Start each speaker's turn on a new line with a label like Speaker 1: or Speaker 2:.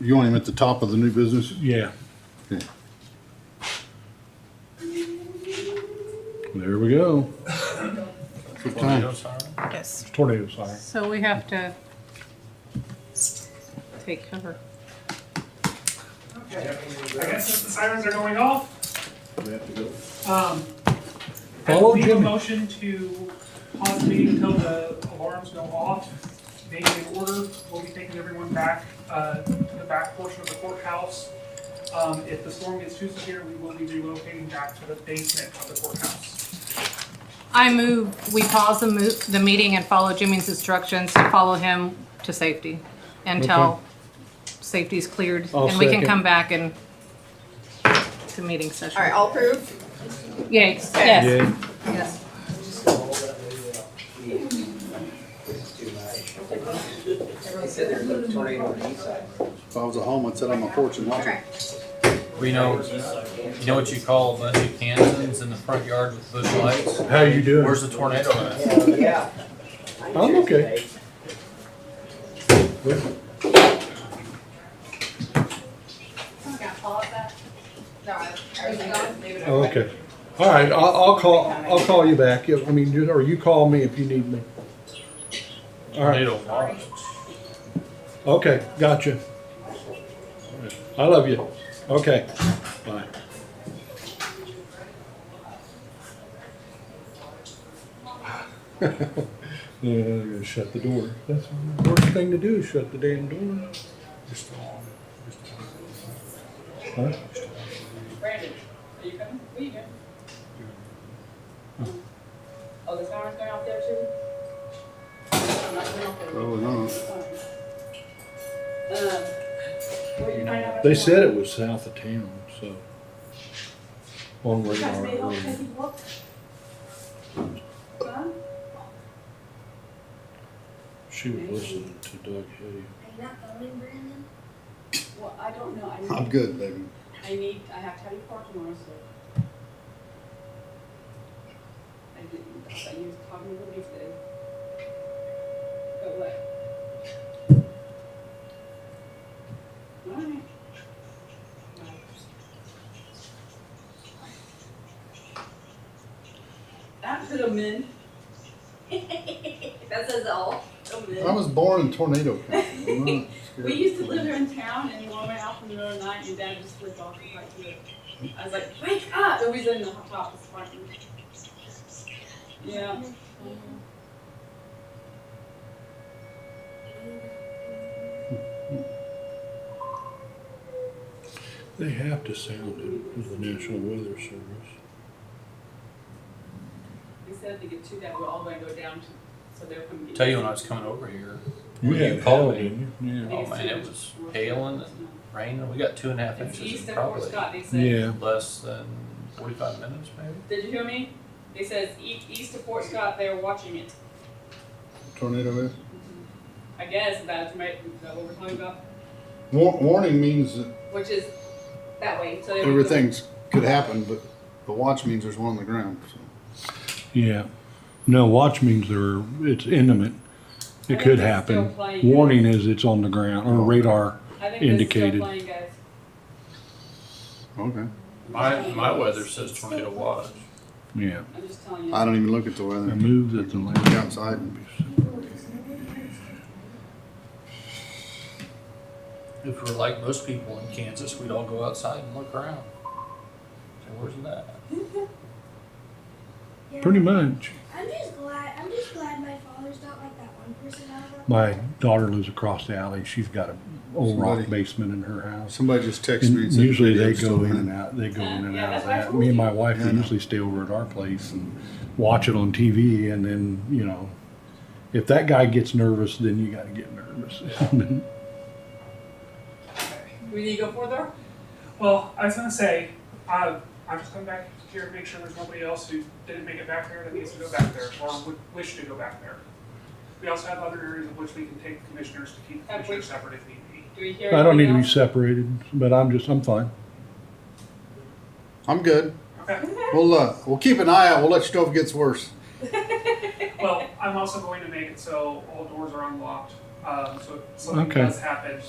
Speaker 1: You want him at the top of the new business?
Speaker 2: Yeah,
Speaker 1: Okay.
Speaker 2: there we go.
Speaker 1: Good time.
Speaker 3: Yes,
Speaker 2: Tornado siren.
Speaker 3: so we have to take cover.
Speaker 4: Okay, I guess since the sirens are going off. Um, I
Speaker 2: Follow
Speaker 4: will leave a
Speaker 2: Jimmy.
Speaker 4: motion to pause the meeting until the alarms go off. They in order, we'll be taking everyone back, uh, to the back portion of the courthouse. Um, if the storm gets too severe, we will be relocating back to the basement of the courthouse.
Speaker 3: I move, we pause the mo- the meeting and follow Jimmy's instructions to follow him to safety until safety's cleared.
Speaker 2: I'll
Speaker 3: And we can
Speaker 2: second.
Speaker 3: come back and, to meeting session.
Speaker 5: All right, all approved?
Speaker 3: Yes, yes.
Speaker 2: Yeah.
Speaker 5: Yes.
Speaker 6: He said there's a tornado on the east side.
Speaker 1: If I was at home, I'd sit on my porch and watch it.
Speaker 5: Okay.
Speaker 7: We know, you know what you call a bunch of Kansans in the front yard with bush lights?
Speaker 2: How you doing?
Speaker 7: Where's the tornado at?
Speaker 6: Hell, Yeah.
Speaker 2: I'm okay.
Speaker 5: No, I- everything gone? Leave it
Speaker 2: Oh, Okay. All right, I'll, I'll call, I'll call you back. Yeah, I mean, you- or you call me if you need me. All right,
Speaker 7: Tornado watch.
Speaker 2: okay, gotcha. I love you. Okay, bye. Yeah, I'm gonna shut the door. That's the worst thing to do, is shut the damn door. Huh?
Speaker 8: Brandon, are you coming? Where you going? Oh, the sirens going off there too? I'm not going off there.
Speaker 1: Probably not.
Speaker 8: Um, where you find out?
Speaker 2: They said it was south of town, so. On radar.
Speaker 8: They don't take
Speaker 2: really.
Speaker 8: you walk. Huh?
Speaker 2: She was listening to Doug Hay.
Speaker 9: Are you not going, Brandon?
Speaker 8: Well, I don't know. I
Speaker 1: I'm
Speaker 8: need,
Speaker 1: good, baby.
Speaker 8: I need, I have to have you parking tomorrow, so. I didn't, I thought you was talking to me today. But what? Alright. Bye. That's a min.
Speaker 9: That says all.
Speaker 8: a
Speaker 1: I
Speaker 8: min.
Speaker 1: was born in tornado country. I'm not scared.
Speaker 8: We used to live here in town and we went out in the middle of the night and dad just flipped off and like, "Look." I was like, wake up! And we was in the hot top of the parking. Yeah.
Speaker 2: They have to sound it with the National Weather Service.
Speaker 8: We said if they get too bad, we're all gonna go down to, so they're gonna be.
Speaker 7: Tell you when I was coming over here,
Speaker 2: You
Speaker 7: Well, you
Speaker 2: had it,
Speaker 7: called
Speaker 2: didn't you?
Speaker 7: oh man, it was hailing and raining. We got two and a half
Speaker 8: It's
Speaker 7: inches
Speaker 8: east
Speaker 7: in
Speaker 8: of
Speaker 7: probably
Speaker 8: Fort Scott, they
Speaker 2: Yeah.
Speaker 8: said.
Speaker 2: Yeah.
Speaker 7: less than forty-five minutes maybe.
Speaker 8: Did you hear me? They says e- east of Fort Scott, they were watching it.
Speaker 1: Tornado is.
Speaker 8: I guess that's right, that's what we're talking about,
Speaker 1: War- Warning means that
Speaker 8: which is that way, so. they would go-
Speaker 1: everything's could happen, but the watch means there's one on the ground. so.
Speaker 2: Yeah. No, watch means they're, it's imminent.
Speaker 8: I
Speaker 2: It
Speaker 8: think
Speaker 2: could
Speaker 8: they're
Speaker 2: happen.
Speaker 8: still playing.
Speaker 2: Warning is it's on the ground or radar.
Speaker 8: I think this is
Speaker 2: indicated.
Speaker 8: still playing, guys.
Speaker 1: Okay.
Speaker 7: My, my weather says tornado watch.
Speaker 2: Yeah.
Speaker 8: I'm just telling you.
Speaker 1: I don't even look at the weather.
Speaker 2: I moved that the
Speaker 1: Look
Speaker 2: land.
Speaker 1: outside and be
Speaker 7: If we we're like most people in Kansas, we'd all go outside and look around. Say, where's that?
Speaker 9: Yeah.
Speaker 2: Pretty much.
Speaker 9: I'm just glad. I'm just glad my father's not like that one person. I know.
Speaker 2: My daughter lives across the alley. She's got a old rock
Speaker 1: Somebody-
Speaker 2: basement in her house.
Speaker 1: Somebody just texted me and
Speaker 2: And
Speaker 1: said.
Speaker 2: usually they
Speaker 1: "It's still
Speaker 2: go in and
Speaker 1: raining."
Speaker 2: out, they go in and
Speaker 8: Yeah,
Speaker 2: out of
Speaker 8: that's what I
Speaker 2: that.
Speaker 8: told
Speaker 2: Me and
Speaker 8: you.
Speaker 2: my wife
Speaker 1: Yeah, I know.
Speaker 2: usually stay over at our place and watch it on TV and then, you know, if that guy gets nervous, then you gotta get nervous.
Speaker 8: We need to go further?
Speaker 4: Well, I was gonna say, uh, I'm just coming back here to make sure there's nobody else who didn't make it back there that needs to go back there, or would wish to go back there. We also have other areas in which we can take commissioners to keep
Speaker 8: Have we-
Speaker 4: commissioners separate if need be.
Speaker 8: Do we hear?
Speaker 2: I don't need to be
Speaker 8: anything
Speaker 2: separated, but I'm just, I'm fine.
Speaker 1: I'm good.
Speaker 4: Okay,
Speaker 1: We'll, uh, we'll keep an eye out. We'll let you know if it gets worse.
Speaker 4: well, I'm also going to make it so all doors are unlocked, um, so if something
Speaker 2: Okay.
Speaker 4: does happen,